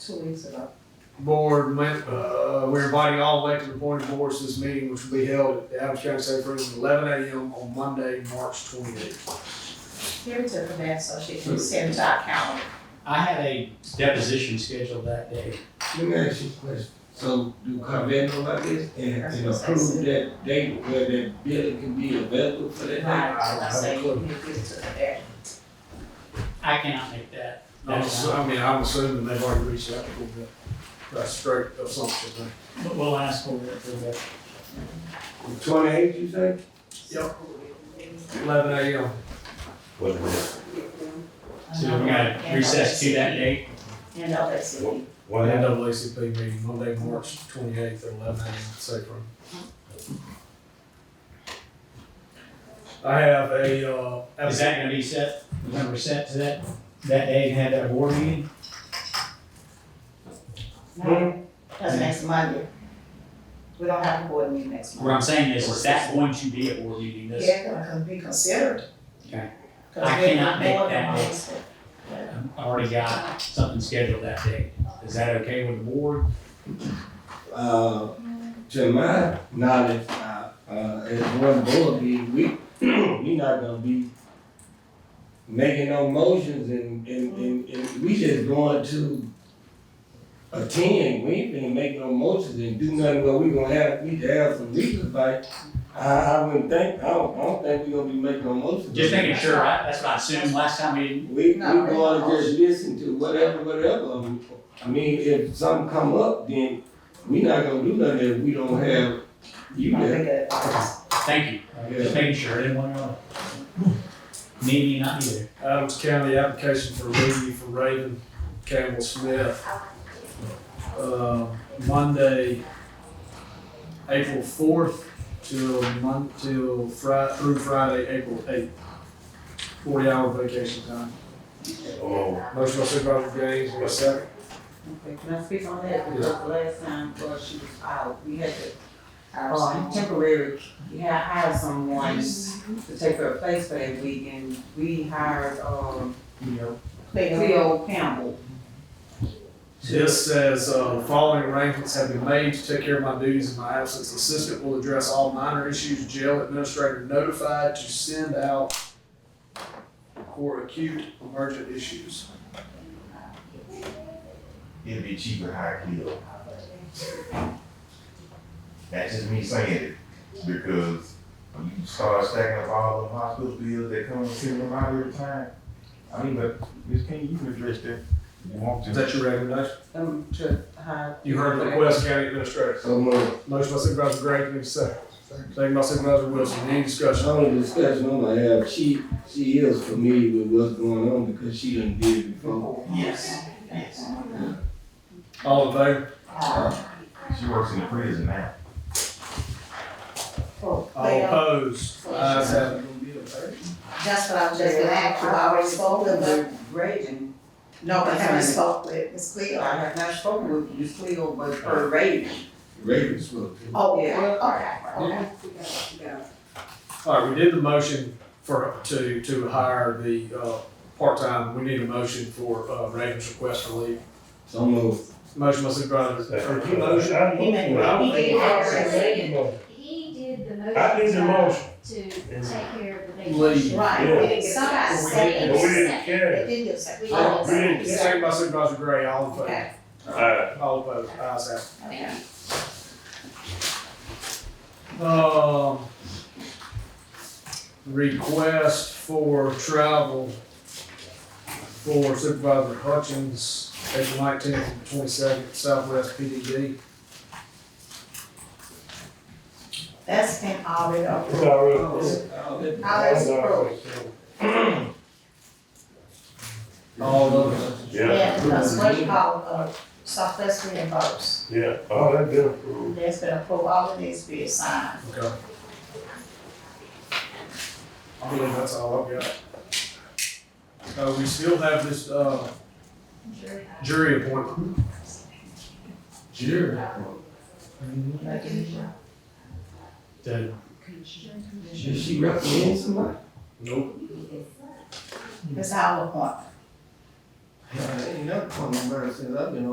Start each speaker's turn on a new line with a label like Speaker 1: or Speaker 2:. Speaker 1: two weeks ago.
Speaker 2: board went, uh, we're inviting all elected and appointed boards to this meeting, which will be held at the Adams County Safe Prison, eleven AM on Monday, March twenty-eighth.
Speaker 1: Give it to the band so she can send to our calendar.
Speaker 3: I had a deposition scheduled that day.
Speaker 4: Let me ask you a question. So do Carvet know about this and, and approve that date where that building can be available for that
Speaker 1: Right,
Speaker 4: day?
Speaker 1: so I say you need to give it to the band.
Speaker 3: I cannot make that.
Speaker 2: I'm assu- I mean, I'm assuming they've already reached out to them, that's straight assumption, man.
Speaker 3: But we'll ask for it for that.
Speaker 4: Twenty-eighth, you say?
Speaker 2: Yep. Eleven AM.
Speaker 5: What, what
Speaker 3: So we gotta recess to that date.
Speaker 1: And all that city.
Speaker 5: what happened?
Speaker 2: NAACP meeting, Monday, March twenty-eighth at eleven AM, Safe Room. I have a, uh.
Speaker 3: Is that gonna be set, Remember set to that, that day and have that board meeting?
Speaker 1: No, That's next Monday. We don't have a board meeting next
Speaker 3: What I'm
Speaker 1: Monday.
Speaker 3: saying is, is that going to be a board meeting this?
Speaker 1: Yeah, gonna con- be considered.
Speaker 3: Okay.
Speaker 1: 'Cause
Speaker 3: I
Speaker 1: we're
Speaker 3: cannot make
Speaker 1: more than
Speaker 3: that.
Speaker 1: honest.
Speaker 3: I already got something scheduled that day. Is that okay with the board?
Speaker 4: Uh, to my knowledge, uh, uh, as one board, we, we, we not gonna be making no motions and, and, and, and we just going to attend. We ain't gonna make no motions and do nothing, but we gonna have, we to have some legal advice. I, I wouldn't think, I don't, I don't think we gonna be making no motions.
Speaker 3: Just making sure, right? That's what I assumed last time we didn't.
Speaker 4: We, we
Speaker 1: No, we
Speaker 4: gonna
Speaker 1: don't.
Speaker 4: just listen to whatever, whatever. um, I mean, if something come up, then we not gonna do nothing if we don't have you
Speaker 1: Not
Speaker 4: there.
Speaker 1: make it honest.
Speaker 3: Thank you. Just making sure, I didn't want to. Maybe not either.
Speaker 2: Adams County application for leave for Raven Campbell Smith. Uh, Monday, April fourth till Mon, till Fri- through Friday, April eighth. Forty hour vacation time.
Speaker 5: Oh,
Speaker 2: Motion by Supervisor Gaines, what's second?
Speaker 6: Okay, can I speak on that? Because last time, well, she was out, we had to,
Speaker 1: Oh,
Speaker 6: uh, temporary, we had hired someone to take her place for that week, and we hired, um,
Speaker 1: Clear.
Speaker 6: Cleo Campbell.
Speaker 2: This says, uh, following arrangements have been made to take care of my duties in my absence. Assistant will address all minor issues, jail administrator notified to send out for acute emergent issues.
Speaker 5: it'd be cheaper high kill. That's just me saying it, because when you start stacking up all them hospital bills that come and send them out every time. I mean, but Miss King, you can address that if you want
Speaker 2: Is
Speaker 5: to.
Speaker 2: that your recommendation?
Speaker 6: Um, to hire.
Speaker 2: You heard the request, County Administrator.
Speaker 4: So, man,
Speaker 2: Motion by Supervisor Gray, give me a second. Second by Supervisor Wilson, any
Speaker 4: I
Speaker 2: discussion?
Speaker 4: don't discuss, no, I have, she, she is familiar with what's going on because she done did it before.
Speaker 5: Yes, yes.
Speaker 2: All in favor?
Speaker 1: Uh,
Speaker 5: She works in the prison now.
Speaker 1: oh,
Speaker 3: Oh,
Speaker 2: All opposed?
Speaker 4: Uh,
Speaker 2: Ayes have it.
Speaker 1: That's what I was just gonna ask you, I already spoke with her.
Speaker 6: Raven,
Speaker 1: No, I haven't spoke with Ms. Cleo.
Speaker 6: I have not spoken with Ms. Cleo, but her Raven.
Speaker 4: Ravens spoke.
Speaker 1: Oh,
Speaker 6: Yeah.
Speaker 1: well, all right, all right.
Speaker 2: All right, we did the motion for, to, to hire the, uh, part-time, we need a motion for, uh, Raven's request for leave.
Speaker 4: So, man,
Speaker 2: Motion by Supervisor, or he motion?
Speaker 1: He made- he did already.
Speaker 7: He did the motion.
Speaker 8: I did the motion.
Speaker 7: To take care of the
Speaker 2: Leave.
Speaker 7: vacation.
Speaker 1: Right, somebody
Speaker 8: But we
Speaker 1: said.
Speaker 8: didn't- but we didn't
Speaker 1: They
Speaker 8: care.
Speaker 1: did give second.
Speaker 7: We didn't-
Speaker 8: we didn't
Speaker 2: Second by Supervisor Gray, all in favor?
Speaker 1: Okay,
Speaker 8: Uh,
Speaker 2: All opposed? Ayes have it.
Speaker 1: okay.
Speaker 2: Um, request for travel for Supervisor Hutchins, April nineteenth and twenty-second, Southwest PDD.
Speaker 1: That's been already
Speaker 8: it's
Speaker 1: approved.
Speaker 4: Oh,
Speaker 8: already,
Speaker 1: Already approved.
Speaker 4: oh,
Speaker 2: All of
Speaker 8: yeah,
Speaker 1: Yeah, because what you call, uh, Southwest reimbursed.
Speaker 8: yeah, all that been approved.
Speaker 1: That's been approved, all of these be signed.
Speaker 2: Okay. I believe that's all I've got. Uh, we still have this, uh, jury appointment.
Speaker 4: Jerry.
Speaker 1: Like,
Speaker 3: The-
Speaker 4: Should she recommend somebody?
Speaker 2: Nope.
Speaker 1: It's our appointment.
Speaker 4: Uh, Ain't nothing from the since I've been on